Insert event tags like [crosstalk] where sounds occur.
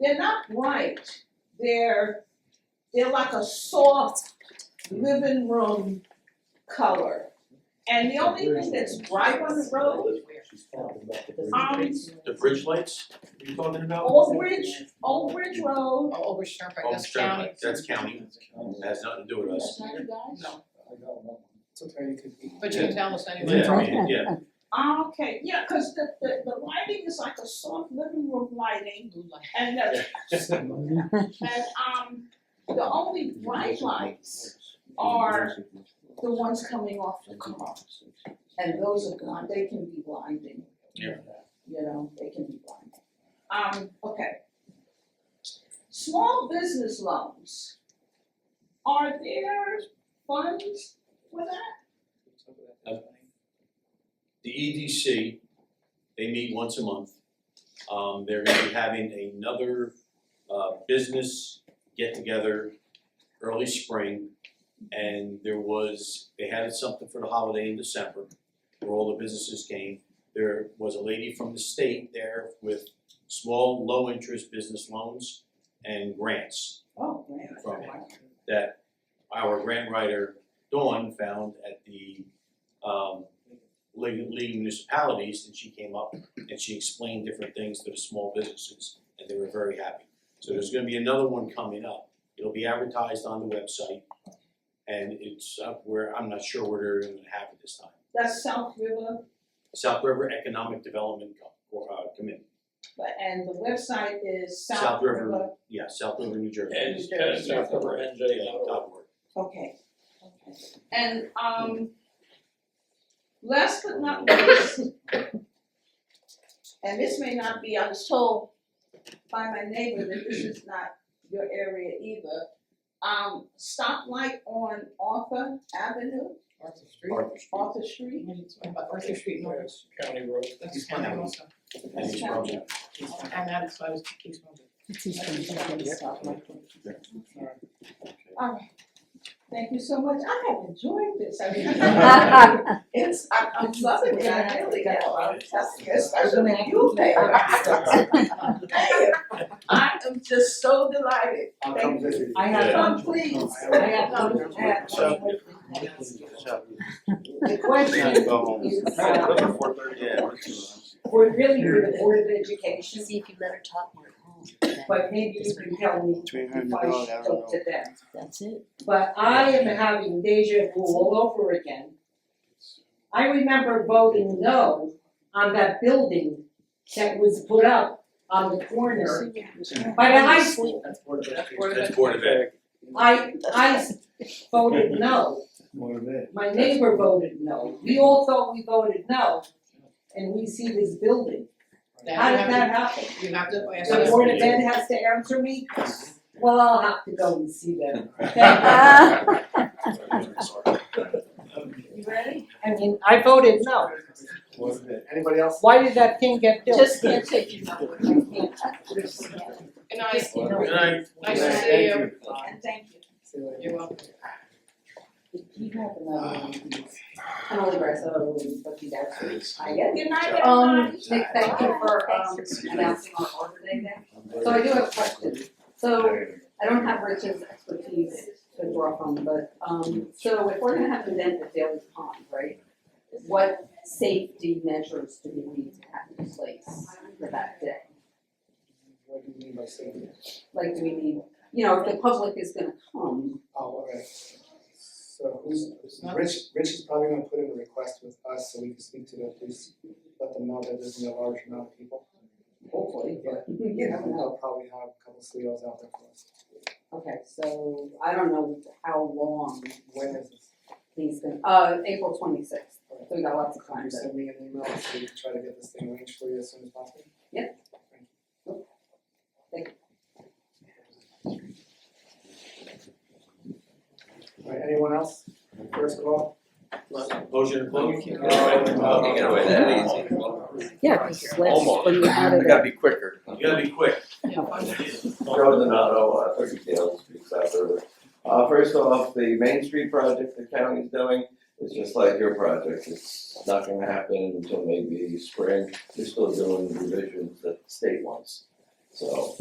they're not bright, they're, they're like a soft living room color. And the only thing that's bright on the road, She's talking about the bridge. um, The bridge lights, you talking about? Old Bridge, Old Bridge Road, Oh, over Sherman, Oh, that's Sherman, county. That's county, It has nothing to do with us. not you guys? No, I got one. It's okay, you could be. but you can tell us anyway. Yeah, I mean, yeah, Ah, okay, yeah, cause the, the, the lighting is like a soft living room lighting, Blue light. and the, Right and, um, the only bright lights are the ones coming off the car. And those are gone, they can be blinding. Yeah. You know, they can be blinding. Um, okay. Small business loans, are there funds for that? the EDC, they meet once a month. Um, they're gonna be having another, uh, business get-together early spring. And there was, they had something for the holiday in December, where all the businesses came. There was a lady from the state there with small, low-interest business loans and grants. Oh, man, I From- forgot. that our grant writer Dawn found at the um league league of municipalities and she came up and she explained different things to the small businesses and they were very happy. So there's gonna be another one coming up. It'll be advertised on the website and it's up where, I'm not sure where they're gonna have it this time. That's South River, South River Economic Development Co- uh Committee, but, and the website is South South River. River. yeah, South River, New Jersey. And uh, South River NJ, Yeah, dot org. Okay, okay. And um last but not least, and this may not be, I was told by my neighbor that this is not your area either. Um stoplight on Arthur Avenue, Arthur Street. Arthur Street. Arthur Street. About Arthur Street, no, Yes, County Road. that's county also. And it's probably- I'm out, so I was, he's one of the- Alright, thank you so much. I have enjoyed this. I mean, [laughs] it's, I I'm loving it, I really am. I'm testing it, especially when you pay. [laughs] I am just so delighted. I'll come visit you. I have- Come, please. I have- Come, and- So- The question is, uh, we're really for the Board of Education, See if you let her talk more at home. but maybe you can tell me Between if I dollars, should go to them. That's it. But I am having deja vu all over again. I remember voting no on that building that was put up on the corner by the high school. That's Board of Ed. That's Board of Ed. I, I voted no, Board of Ed. my neighbor voted no, we all thought we voted no, and we see this building. How did that happen? You have to ask The us. board of ed has to answer me? Well, I'll have to go and see them. [laughs] You ready? I mean, I voted no. Board of Ed. Anybody else? Why did that thing get built? Just can't take you And I, Good night. Nice to see you. Thank And thank you. See you later. you're welcome. You have another one. I'm only grass, I don't really fuck you guys. I get it. Good night, Um, everybody. Nick, thank you for um Thanks announcing our order today then. So I do have a question. So I don't have Rich's expertise to draw from, but um so if we're gonna have an event at Daly's Pond, right? What safety measures do we need to have in place for that day? What do you mean by saying that? Like, do we need, you know, if the public is gonna come, Oh, all right. So who's, Rich, Rich is probably gonna put in a request with us so we can speak to the police, let them know that there's gonna be a large amount of people. hopefully, but [laughs] you Yeah, never know. they'll probably have a couple of CEOs out there for us. Okay, so I don't know how long When is this? he's gonna, uh, April twenty-sixth, so we got lots of Can time you to. send me an email so we can try to get this thing arranged for you as soon as possible? Yep. Thank you. All right, anyone else? First of all? Motion to close. You You get away that easy. Yeah, cause last, Almost. when we had I it, gotta be quicker. You gotta be quick. Yeah, fun. Joe Donato, uh, thirty Dale Street, South River. Uh, first off, the Main Street project the county's doing is just like your project, it's not gonna happen until maybe spring. They're still doing revisions that the state wants, so.